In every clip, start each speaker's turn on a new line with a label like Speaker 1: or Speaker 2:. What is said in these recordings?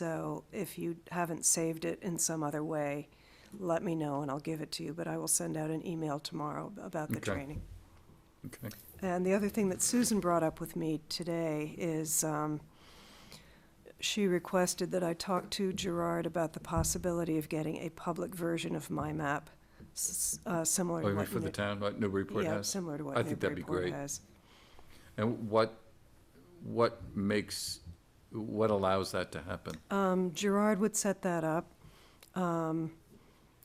Speaker 1: So if you haven't saved it in some other way, let me know and I'll give it to you, but I will send out an email tomorrow about the
Speaker 2: Okay.
Speaker 1: training.
Speaker 2: Okay.
Speaker 1: And the other thing that Susan brought up with me today is, um, she requested that I talk to Gerard about the possibility of getting a public version of my map, s- uh, similar
Speaker 2: Oh,
Speaker 1: to
Speaker 2: you mean
Speaker 1: what.
Speaker 2: for the
Speaker 1: Newbury-
Speaker 2: town, like Newburyport
Speaker 1: Yeah,
Speaker 2: has?
Speaker 1: similar to
Speaker 2: I
Speaker 1: what
Speaker 2: think that'd be
Speaker 1: Newburyport
Speaker 2: great.
Speaker 1: has.
Speaker 2: And what, what makes, what allows that to happen?
Speaker 1: Um, Gerard would set that up. Um,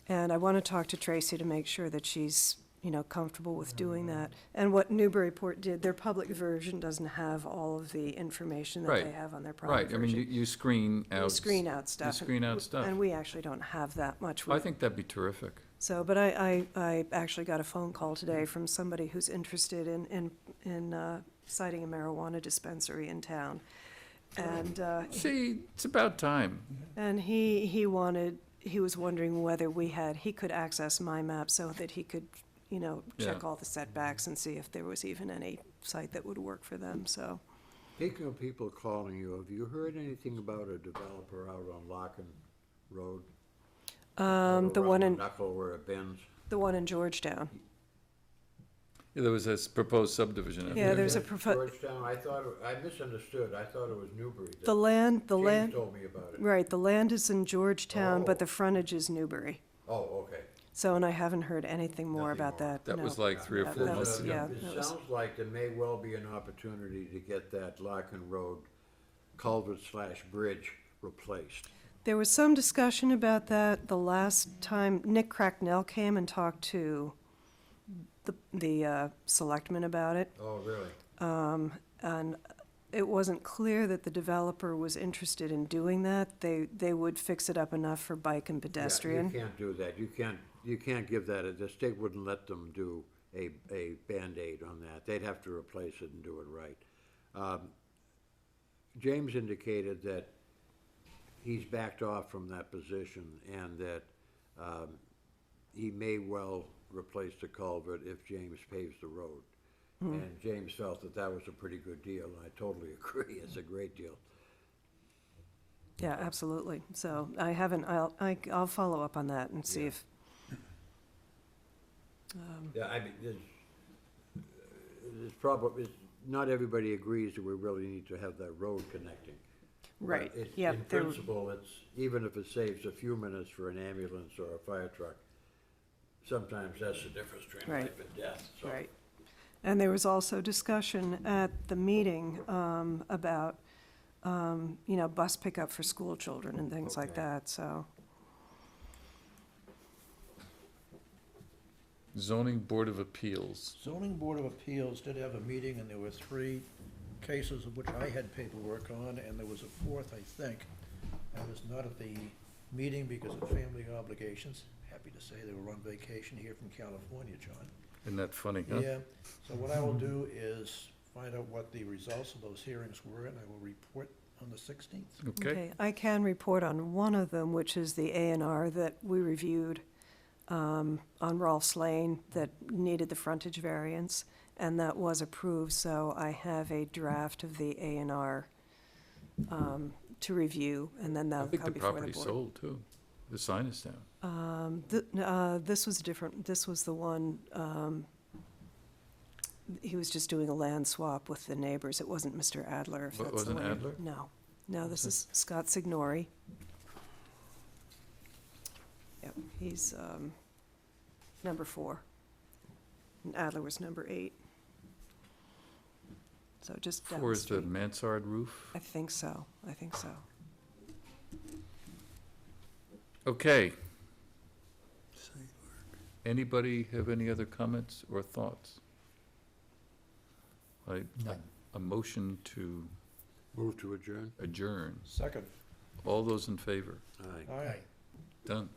Speaker 1: and I want to talk to Tracy to make sure that she's, you know, comfortable with doing that. And what Newburyport did, their public version doesn't have all of the information that they
Speaker 2: Right,
Speaker 1: have on their private
Speaker 2: Right, I mean, you,
Speaker 1: version.
Speaker 2: you screen
Speaker 1: They
Speaker 2: out.
Speaker 1: screen out stuff. and-
Speaker 2: screen out stuff.
Speaker 1: And we actually don't have that much.
Speaker 2: I
Speaker 1: with-
Speaker 2: think that'd be terrific.
Speaker 1: So, but I, I, I actually got a phone call today from somebody who's interested in, in, in, uh, citing a marijuana dispensary in town. And, uh,
Speaker 2: See, it's about time.
Speaker 1: And he, he wanted, he was wondering whether we had, he could access my map so that he could, you know, check
Speaker 2: Yeah.
Speaker 1: all the setbacks and see if there was even any site that would work for them, so.
Speaker 3: Speaking of people calling you, have you heard anything about a developer out on Locken Road?
Speaker 1: Um, the
Speaker 3: Over
Speaker 1: one
Speaker 3: on
Speaker 1: in,
Speaker 3: Knuckle where it bends?
Speaker 1: the one in Georgetown.
Speaker 2: Yeah, There was this proposed subdivision. out
Speaker 1: Yeah,
Speaker 2: there.
Speaker 1: there's a,
Speaker 3: Is that
Speaker 1: propo-
Speaker 3: Georgetown, I thought, it- I misunderstood, I thought it was Newbury. that-
Speaker 1: the land, the
Speaker 3: James
Speaker 1: land,
Speaker 3: told me about it.
Speaker 1: right, the land is in Georgetown, but
Speaker 3: Oh.
Speaker 1: the frontage is Newbury.
Speaker 3: Oh, okay.
Speaker 1: So, and I haven't heard anything more
Speaker 3: Nothing
Speaker 1: about
Speaker 3: more.
Speaker 1: that.
Speaker 2: That
Speaker 1: no.
Speaker 2: was like three or
Speaker 1: That-
Speaker 2: four
Speaker 1: that
Speaker 2: months
Speaker 1: was-
Speaker 2: ago.
Speaker 1: yeah,
Speaker 3: It
Speaker 1: that was-
Speaker 3: sounds like there may well be an opportunity to get that Locken Road culvert slash bridge replaced.
Speaker 1: There was some discussion about that the last time Nick Cracknell came and talked to the, the uh, selectmen about it.
Speaker 3: Oh, really?
Speaker 1: And it wasn't clear that the developer was interested in doing that. They, they would fix it up enough for bike and
Speaker 3: Yeah,
Speaker 1: pedestrian.
Speaker 3: You can't do that, you can't, you can't give that, a- the state wouldn't let them do a, a Band-Aid on that, they'd have to replace it and do it right. Um, James indicated that he's backed off from that position and that, um, he may well replace the culvert if James paves the road. And James felt that that was a pretty good deal, and I totally agree, it's a great deal.
Speaker 1: Yeah, absolutely. So I haven't, I'll, I- I'll follow up on that and see
Speaker 3: Yeah.
Speaker 1: if,
Speaker 3: Yeah, I mean, there's, there's probably, it's- not everybody agrees that we really need to have that road connecting. But
Speaker 1: right,
Speaker 3: it's-
Speaker 1: yeah.
Speaker 3: In
Speaker 1: there-
Speaker 3: principle, it's, even if it saves a few minutes for an ambulance or a fire truck, sometimes that's the difference between
Speaker 1: Right.
Speaker 3: life and death, so.
Speaker 1: Right. And there was also discussion at the meeting um, about, um, you know, bus pickup for school children and things like
Speaker 3: Okay.
Speaker 1: that, so.
Speaker 2: Zoning Board of Appeals.
Speaker 4: Zoning Board of Appeals did have a meeting, and there were three cases of which I had paperwork on, and there was a fourth, I think. I was not at the meeting because of family obligations. Happy to say they were on vacation here from California, John.
Speaker 2: Isn't that funny, huh?
Speaker 4: Yeah, so what I will do is find out what the results of those hearings were, and I will report on the sixteenth.
Speaker 2: Okay,
Speaker 1: I can report on one of them, which is the A and R that we reviewed um, on Rolfs Lane that needed the frontage variance, and that was approved, so I have a draft of the A and R um, to review, and then
Speaker 2: I
Speaker 1: that'll
Speaker 2: think the
Speaker 1: come before uh, the
Speaker 2: property
Speaker 1: board.
Speaker 2: sold too. The sign is down.
Speaker 1: Th- uh, This was different, this was the one, um, he was just doing a land swap with the neighbors, it wasn't Mr. Adler, if
Speaker 2: Wa-
Speaker 1: that's the
Speaker 2: wasn't
Speaker 1: one.
Speaker 2: Adler?
Speaker 1: No, no, this is Scott Signori. Yep, he's um, number four, and Adler was number eight. So just down
Speaker 2: Four
Speaker 1: the
Speaker 2: is the
Speaker 1: street.
Speaker 2: mansard roof.
Speaker 1: I think so, I think so.
Speaker 2: Okay. Anybody have any other comments or thoughts? I, a motion to
Speaker 3: Move to adjourn?
Speaker 2: adjourn.
Speaker 4: Second.
Speaker 2: All those in favor?
Speaker 3: Aye.
Speaker 4: Aye.
Speaker 2: Done.